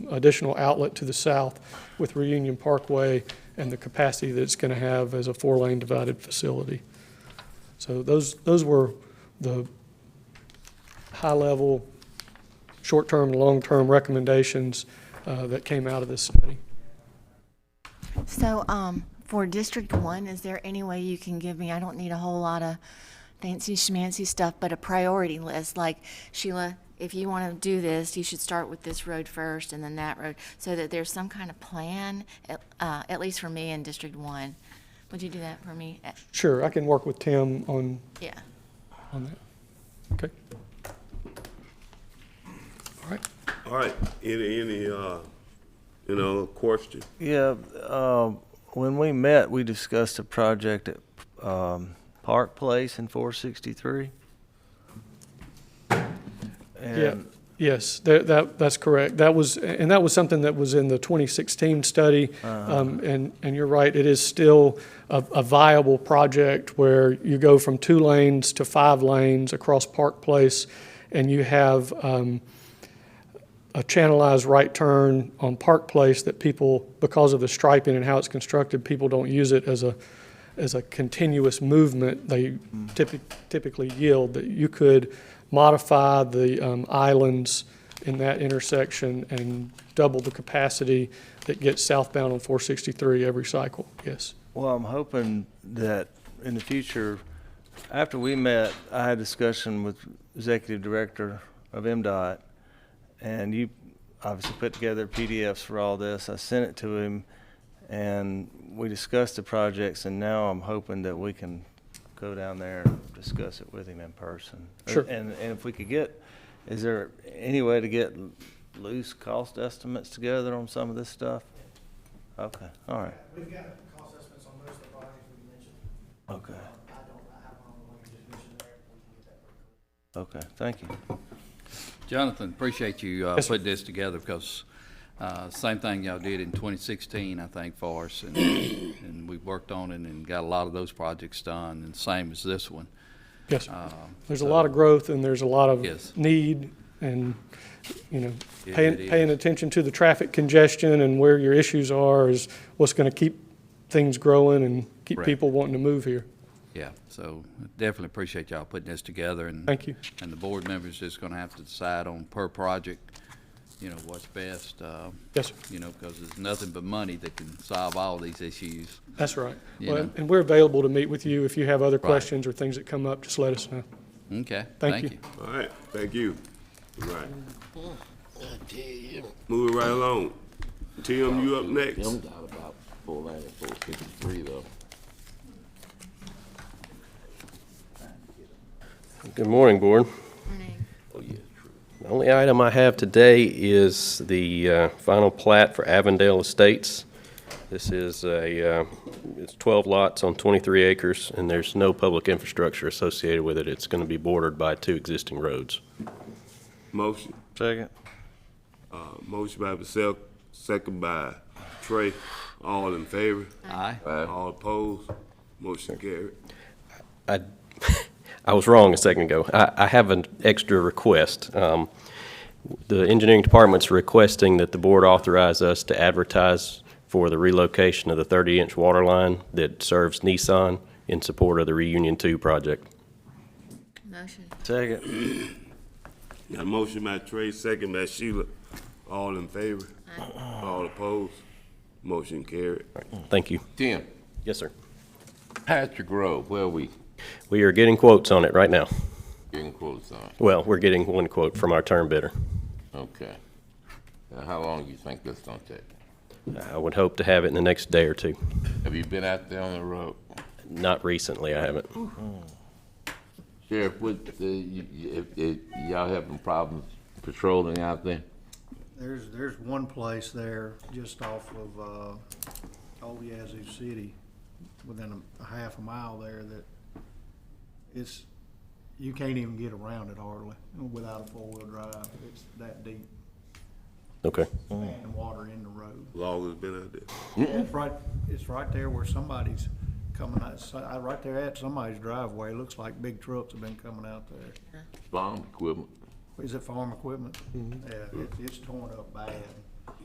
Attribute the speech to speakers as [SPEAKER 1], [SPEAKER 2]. [SPEAKER 1] additional outlet to the south with Reunion Parkway and the capacity that it's going to have as a four-lane divided facility. So those, those were the high-level, short-term, and long-term recommendations uh, that came out of this study.
[SPEAKER 2] So, um, for District One, is there any way you can give me, I don't need a whole lot of fancy schmancy stuff, but a priority list, like Sheila, if you want to do this, you should start with this road first and then that road, so that there's some kind of plan, at, uh, at least for me in District One. Would you do that for me? Uh,
[SPEAKER 1] Sure, I can work with Tim on,
[SPEAKER 2] Yeah.
[SPEAKER 1] on that. Okay? All right.
[SPEAKER 3] All right, any, any, uh, you know, question?
[SPEAKER 4] Yeah, um, when we met, we discussed a project at um, Park Place in 463.
[SPEAKER 1] Yeah,
[SPEAKER 4] And
[SPEAKER 1] yes, that, that, that's correct. That was, and that was something that was in the 2016 study. Um, And, and you're right, it is still a, a viable project where you go from two lanes to five lanes across Park Place, and you have um, a channelized right turn on Park Place that people, because of the striping and how it's constructed, people don't use it as a, as a continuous movement, they typi- typically yield, that you could modify the um, islands in that intersection and double the capacity that gets southbound on 463 every cycle, yes.
[SPEAKER 4] Well, I'm hoping that in the future, after we met, I had a discussion with Executive Director of MDOT, and you obviously put together PDFs for all this. I sent it to him, and we discussed the projects, and now I'm hoping that we can go down there and discuss it with him in person.
[SPEAKER 1] Sure.
[SPEAKER 4] And, and if we could get, is there any way to get loose cost estimates together on some of this stuff? Okay, all right,
[SPEAKER 5] We've got cost estimates on most of the projects we mentioned.
[SPEAKER 4] okay.
[SPEAKER 5] I don't, I have my own definition there. We can get that.
[SPEAKER 4] Okay, thank you.
[SPEAKER 6] Jonathan, appreciate you uh,
[SPEAKER 1] Yes, sir.
[SPEAKER 6] putting this together because uh, same thing y'all did in 2016, I think, for us. And, and we worked on it and got a lot of those projects done and same as this one.
[SPEAKER 1] Yes, sir.
[SPEAKER 6] Um,
[SPEAKER 1] there's a
[SPEAKER 6] so-
[SPEAKER 1] lot of growth and there's a lot
[SPEAKER 6] Yes.
[SPEAKER 1] of need and, you know,
[SPEAKER 6] It-
[SPEAKER 1] paying,
[SPEAKER 6] it
[SPEAKER 1] paying
[SPEAKER 6] is.
[SPEAKER 1] attention to the traffic congestion and where your issues are is what's going to keep things growing and keep
[SPEAKER 6] Right.
[SPEAKER 1] people wanting to move here.
[SPEAKER 6] Yeah, so definitely appreciate y'all putting this together and.
[SPEAKER 1] Thank you.
[SPEAKER 6] And the board members just gonna have to decide on per project, you know, what's best, uh,
[SPEAKER 1] Yes, sir.
[SPEAKER 6] you know, because there's nothing but money that can solve all these issues.
[SPEAKER 1] That's right.
[SPEAKER 6] You
[SPEAKER 1] Well,
[SPEAKER 6] know?
[SPEAKER 1] And we're available to meet with you if you have other questions or things that come up, just let us know.
[SPEAKER 6] Okay,
[SPEAKER 1] Thank you.
[SPEAKER 6] thank you.
[SPEAKER 3] All right, thank you. All right. Moving right along. Tim, you up next?
[SPEAKER 7] Them down about four ninety, four fifty-three though.
[SPEAKER 8] Good morning, Board.
[SPEAKER 2] Morning.
[SPEAKER 7] Oh, yeah, true.
[SPEAKER 8] The only item I have today is the uh, final plat for Avondale Estates. This is a, uh, it's 12 lots on 23 acres, and there's no public infrastructure associated with it. It's going to be bordered by two existing roads.
[SPEAKER 3] Motion,
[SPEAKER 4] Second.
[SPEAKER 3] uh, motion by myself, second by Trey. All in favor?
[SPEAKER 6] Aye.
[SPEAKER 3] All opposed? Motion carried.
[SPEAKER 8] I, I was wrong a second ago. I, I have an extra request. Um, The engineering department's requesting that the board authorize us to advertise for the relocation of the 30-inch water line that serves Nissan in support of the Reunion 2 project.
[SPEAKER 2] Motion.
[SPEAKER 4] Second.
[SPEAKER 3] Got a motion by Trey, second by Sheila. All in favor? All opposed? Motion carried.
[SPEAKER 8] Thank you.
[SPEAKER 7] Tim,
[SPEAKER 8] Yes, sir.
[SPEAKER 7] Patrick Grove, where are we
[SPEAKER 8] We are getting quotes on it right now.
[SPEAKER 7] getting quotes on?
[SPEAKER 8] Well, we're getting one quote from our term bidder.
[SPEAKER 7] Okay. Now, how long do you think that's gonna take?
[SPEAKER 8] I would hope to have it in the next day or two.
[SPEAKER 7] Have you been out there on the road?
[SPEAKER 8] Not recently, I haven't.
[SPEAKER 7] Sheriff, what, uh, y- y- if, if y'all having problems patrolling out there?
[SPEAKER 5] There's, there's one place there just off of, uh, Old Yazoo City, within a half a mile there that it's, you can't even get around it hardly without a four-wheel drive. It's that deep
[SPEAKER 8] Okay.
[SPEAKER 5] and water in the road.
[SPEAKER 3] Long has been out there.
[SPEAKER 5] It's right, it's right there where somebody's coming out, so- uh, right there at somebody's driveway. Looks like big trucks have been coming out there.
[SPEAKER 7] Bomb equipment?
[SPEAKER 5] Is it farm equipment? Yeah, it- it's torn up bad.